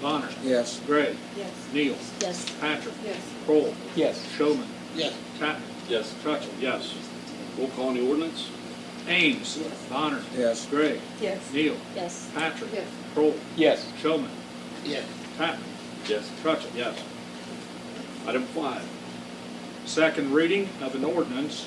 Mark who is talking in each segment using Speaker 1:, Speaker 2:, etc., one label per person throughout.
Speaker 1: Bonner,
Speaker 2: Yes.
Speaker 1: Gray,
Speaker 3: Yes.
Speaker 1: Neal,
Speaker 3: Yes.
Speaker 1: Patrick,
Speaker 3: Yes.
Speaker 1: Kroll,
Speaker 4: Yes.
Speaker 1: Showman,
Speaker 2: Yes.
Speaker 1: Tatman,
Speaker 5: Yes.
Speaker 1: Trutchen, yes. Roll call on the ordinance. Ames, Bonner,
Speaker 2: Yes.
Speaker 1: Gray,
Speaker 3: Yes.
Speaker 1: Neal,
Speaker 3: Yes.
Speaker 1: Patrick,
Speaker 3: Yes.
Speaker 1: Kroll,
Speaker 4: Yes.
Speaker 1: Showman,
Speaker 2: Yes.
Speaker 1: Tatman,
Speaker 5: Yes.
Speaker 1: Trutchen, yes. Item five, second reading of an ordinance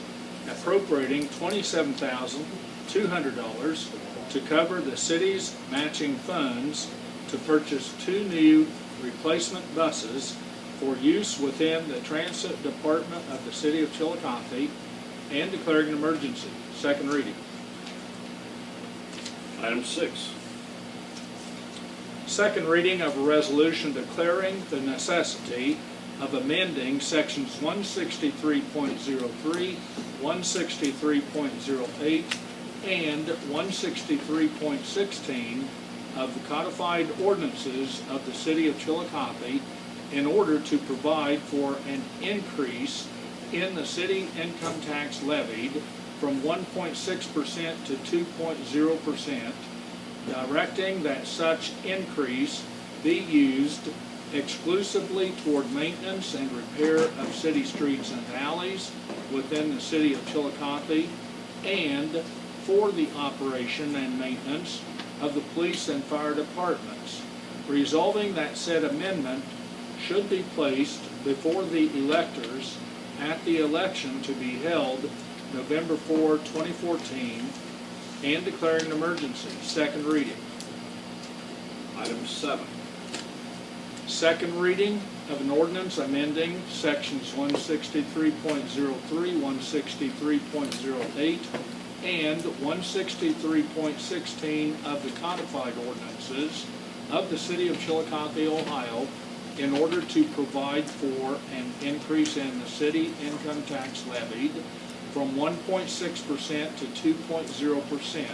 Speaker 1: appropriating twenty-seven thousand, two hundred dollars to cover the city's matching funds to purchase two new replacement buses for use within the transit department of the city of Chillicothe and declaring an emergency. Second reading.
Speaker 5: Item six.
Speaker 1: Second reading of a resolution declaring the necessity of amending sections 163.03, 163.08, and 163.16 of the codified ordinances of the city of Chillicothe in order to provide for an increase in the city income tax levied from 1.6% to 2.0%, directing that such increase be used exclusively toward maintenance and repair of city streets and alleys within the city of Chillicothe and for the operation and maintenance of the police and fire departments, resolving that said amendment should be placed before the electors at the election to be held November 4, 2014, and declaring an emergency. Second reading.
Speaker 5: Item seven.
Speaker 1: Second reading of an ordinance amending sections 163.03, 163.08, and 163.16 of the codified ordinances of the city of Chillicothe, Ohio, in order to provide for an increase in the city income tax levied from 1.6% to 2.0%,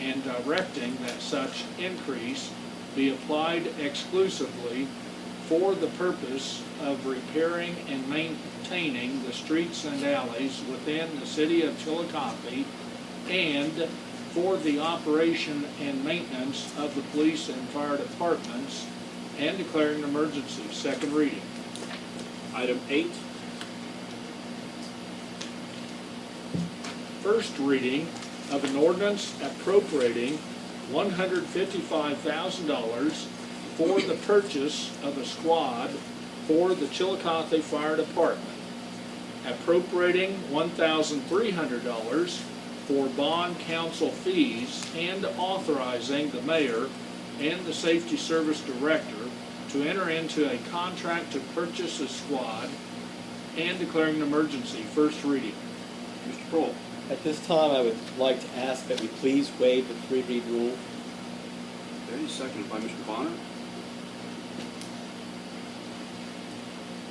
Speaker 1: and directing that such increase be applied exclusively for the purpose of repairing and maintaining the streets and alleys within the city of Chillicothe and for the operation and maintenance of the police and fire departments and declaring an emergency. Second reading.
Speaker 5: Item eight.
Speaker 1: first reading of an ordinance appropriating $155,000 for the purchase of a squad for the Chillicothe Fire Department, appropriating $1,300 for bond council fees, and authorizing the mayor and the safety service director to enter into a contract to purchase a squad and declaring an emergency. First reading. Mr. Prohl.
Speaker 4: At this time, I would like to ask that we please waive the three read rule.
Speaker 5: Okay, seconded by Mr. Bonner.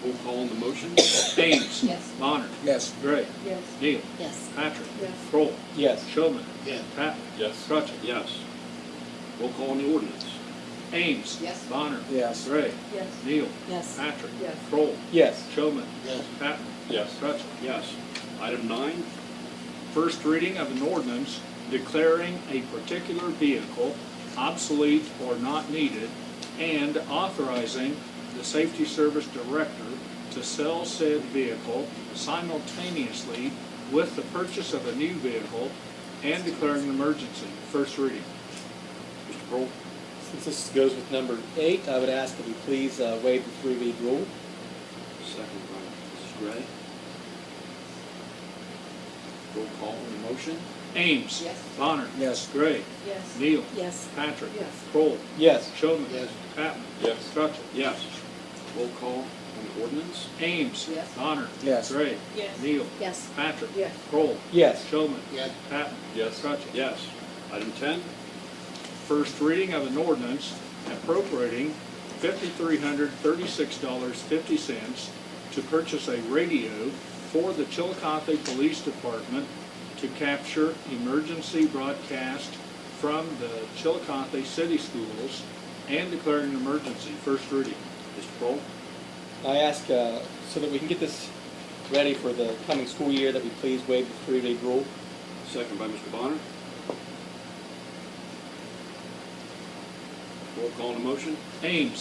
Speaker 5: Roll call on the motion.
Speaker 1: Ames.
Speaker 3: Yes.
Speaker 1: Bonner.
Speaker 2: Yes.
Speaker 1: Gray.
Speaker 3: Yes.
Speaker 1: Neal.
Speaker 3: Yes.
Speaker 1: Patrick.
Speaker 3: Yes.
Speaker 1: Kroll.
Speaker 4: Yes.
Speaker 1: Showman.
Speaker 2: Yes.
Speaker 1: Patton.
Speaker 5: Yes.
Speaker 1: Trutchen.
Speaker 5: Yes. Roll call on the ordinance.
Speaker 1: Ames.
Speaker 3: Yes.
Speaker 1: Bonner.
Speaker 2: Yes.
Speaker 1: Gray.
Speaker 3: Yes.
Speaker 1: Neal.
Speaker 3: Yes.
Speaker 1: Patrick.
Speaker 3: Yes.
Speaker 1: Kroll.
Speaker 4: Yes.
Speaker 1: Showman.
Speaker 2: Yes.
Speaker 1: Patton.
Speaker 5: Yes.
Speaker 1: Trutchen.
Speaker 5: Yes. Item nine.
Speaker 1: First reading of an ordinance declaring a particular vehicle obsolete or not needed and authorizing the safety service director to sell said vehicle simultaneously with the purchase of a new vehicle and declaring an emergency. First reading.
Speaker 5: Mr. Pearl.
Speaker 4: Since this goes with number eight, I would ask that we please uh, waive the three read rule.
Speaker 5: Seconded by Mrs. Gray. Roll call on the motion.
Speaker 1: Ames.
Speaker 3: Yes.
Speaker 1: Bonner.
Speaker 2: Yes.
Speaker 1: Gray.
Speaker 3: Yes.
Speaker 1: Neal.
Speaker 3: Yes.
Speaker 1: Patrick.
Speaker 3: Yes.
Speaker 1: Kroll.
Speaker 4: Yes.
Speaker 1: Showman.
Speaker 2: Yes.
Speaker 1: Patton.
Speaker 5: Yes.
Speaker 1: Trutchen.
Speaker 5: Yes. Roll call on the ordinance.
Speaker 1: Ames.
Speaker 3: Yes.
Speaker 1: Bonner.
Speaker 2: Yes.
Speaker 1: Gray.
Speaker 3: Yes.
Speaker 1: Neal.
Speaker 3: Yes.
Speaker 1: Patrick.
Speaker 3: Yes.
Speaker 1: Kroll.
Speaker 4: Yes.
Speaker 1: Showman.
Speaker 2: Yes.
Speaker 1: Patton.
Speaker 5: Yes.
Speaker 1: Trutchen.
Speaker 5: Yes. Item ten.
Speaker 1: First reading of an ordinance appropriating fifty-three hundred thirty-six dollars fifty cents to purchase a radio for the Chillicothe Police Department to capture emergency broadcast from the Chillicothe City Schools and declaring an emergency. First reading.
Speaker 5: Mr. Pearl.
Speaker 4: I ask, uh, so that we can get this ready for the coming school year, that we please waive the three read rule.
Speaker 5: Second by Mr. Bonner. Roll call on the motion?
Speaker 1: Ames.